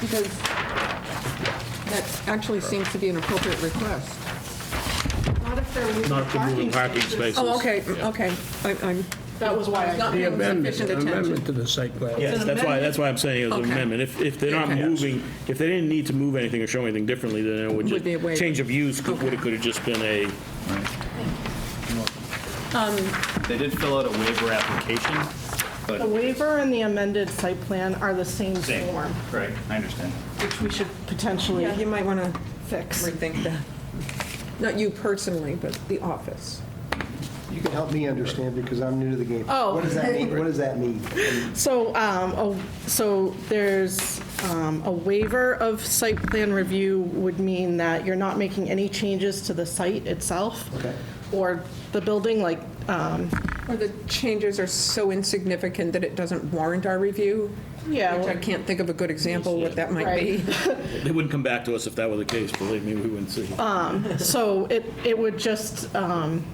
Because that actually seems to be an appropriate request. Not if they're moving Not to move parking parking spaces. spaces. Oh, okay, okay. I- I'm That was why I not did. paying sufficient attention. amendment to the site plan. Yes, that's why, that's why I'm saying it was Okay. an amendment. If, if they're not Okay. moving, if they didn't need to move anything or show anything differently, then it would Would be a waiver. just, change of use could, would, it could have just been a, They did fill out a waiver application, The but, waiver and the amended site plan are the same Same. form, right, I understand. which we should potentially Yeah, you might want to fix. rethink that. Not you personally, but the office. You can help me understand because I'm new to the game. Oh. What does that mean? What does that mean? So, um, a- so there's, um, a waiver of site plan review would mean that you're not making any changes to the site itself. Okay. Or the building, like, um, Or the changes are so insignificant that it doesn't warrant our review? Yeah, Which I well- can't think of a good example what that might be. Right. they wouldn't come back to us if that were the case, believe me, we wouldn't see. so it, it would just, um,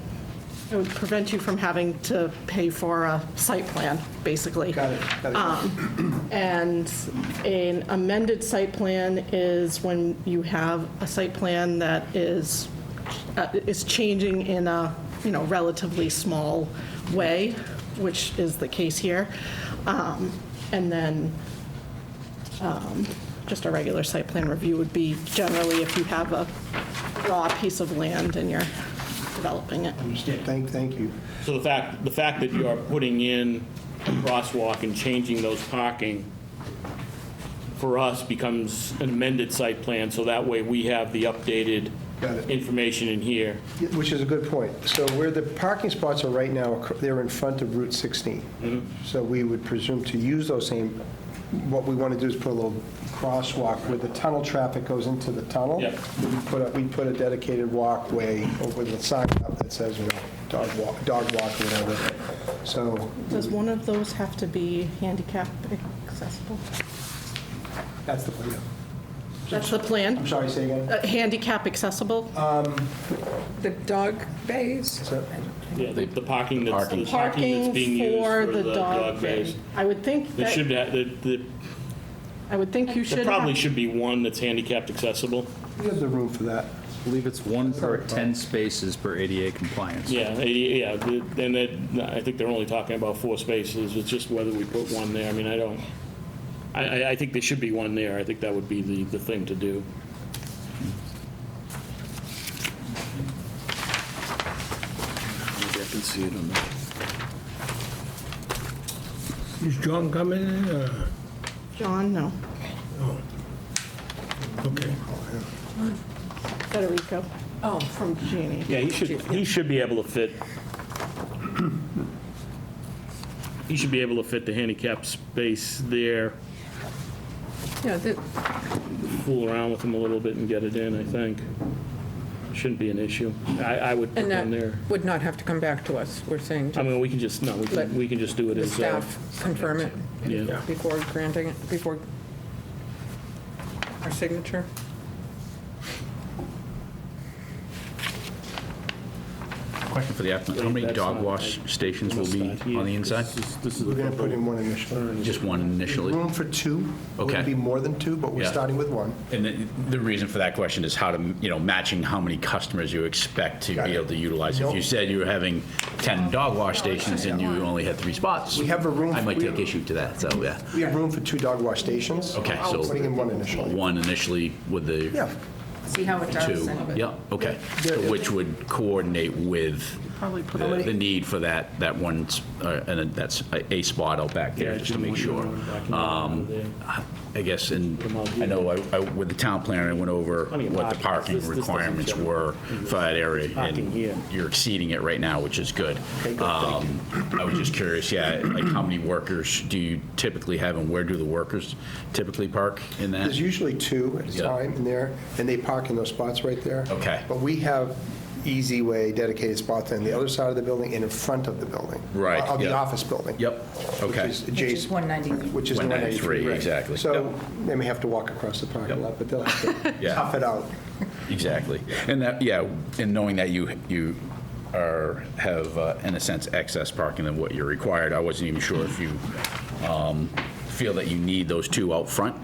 it would prevent you from having to pay for a site plan, basically. Um, Got it, got it. And an amended site plan is when you have a site plan that is, uh, is changing in a, you know, relatively small way, which is the case here. Um, And then um, just a regular site plan review would be generally if you have a raw piece of land and you're developing it. Thank, thank you. So the fact, the fact that you are putting in a crosswalk and changing those parking for us becomes an amended site plan, so that way we have the updated Got it. information in here. Yeah, Which is a good point. So where the parking spots are right now, they're in front of Route 16. So we would presume to use those same, what we want to do is put a little crosswalk where the tunnel traffic goes into the tunnel. Yep. We put a, we put a dedicated walkway over the sign up that says, you know, dog walk, dog walk or whatever. So Does one of those have to be handicap accessible? that's the plan. That's the plan? I'm sorry, say again? Uh, handicap accessible? Uh, The dog bays? So- Yeah, the the parking that's, the parking that's Parking being used for the dog base. thing. I would think There should, that, ha- there- there I would think you should there have. probably should be one that's handicapped accessible. We have the room for that. I believe it's one per 10 spaces per ADA compliance. Yeah, eh, yeah, the- and that, I think they're only talking about four spaces, it's just whether we put one there, I mean, I don't, I, I- I think there should be one there, I think that would be the, the thing to do. Is John coming in? or- John, no. Okay. Federico. Oh. From Genie. Yeah, he should, he should be able to fit, he should be able to fit the handicap space there, Yeah, the- fool around with him a little bit and get it in, I think. Shouldn't be an issue, I, I would put and that one there. would not have to come back to us, we're saying I to mean, we can just, no, we Let can, we can just do it the as, uh, staff, confirm it yeah. before granting it, before our signature. Question for the applicant, how many That's dog not- wash stations will be Must not here. on the inside? This is- this is We're going to the- put in one initially. Just one initially? Room for two. Okay. Would be more than two, but we're Yeah. starting with one. And the- the reason for that question is how to, you know, matching how many customers you expect to Got be it. able to utilize. If Nope. you said you were having 10 dog wash stations and you only had three spots. We have a room- I might we- take issue to that, so, yeah. We have room for two dog wash stations. Okay, so- Putting in one initially. One initially with the Yeah. See how it does. two. and- Yeah, okay. So Which would coordinate with Probably put the the need for that, that one, s- uh, and then that's a a spot out back Yeah, there, just to Jim, make we sure. don't want to Um, document it I guess, and I know I- I- with the town planner, I went over Plenty of what the parking. This- parking this doesn't requirements show. were for that area. Parking here. And you're exceeding it right now, which is good. Um, I was just curious, yeah, like how many workers do you typically have and where do the workers typically park in that? There's usually two at a Yeah. time in there, and they park in those spots right there. Okay. But we have easy way dedicated spots on the other side of the building and in front of the building. Right, Of the yeah. office building. Yep, Which okay. is Which is adjacent, 193. which is the 193, 193. right. exactly. So they may have to walk across the parking Yep. lot, but they'll have to Yeah. tough it out. Exactly. And that, yeah, and knowing that you, you are, have, uh, in a sense, excess parking than what you're required, I wasn't even sure if you um, feel that you need those two out front